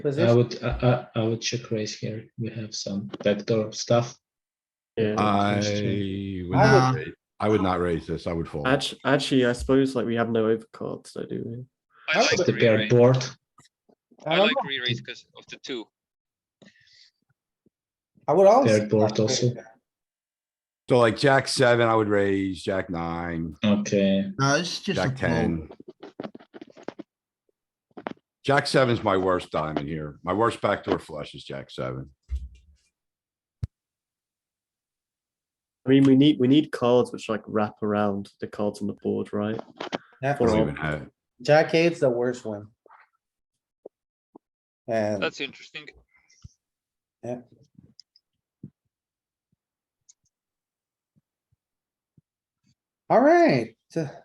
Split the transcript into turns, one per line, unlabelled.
I
position.
would, I, I, I would check raise here. We have some backdoor stuff.
Uh, I would
I
not
would-
ra- I would not raise this. I would fold.
Actually, actually, I suppose like we have no overcards, so do we?
I
I
like
It's a paired
re-raise.
board.
I
I
don't
like
know.
re-raise because of the two.
I would also.
Paired board also.
So like jack seven, I would raise, jack nine,
Okay,
No, Uh, it's just a
jack
fold.
ten. Jack seven's my worst diamond here. My worst backdoor flush is jack seven.
I mean, we need we need cards which like wrap around the cards on the board, right?
Yeah,
I don't
Fold.
even have,
jack eight's the worst one. And
That's interesting.
alright,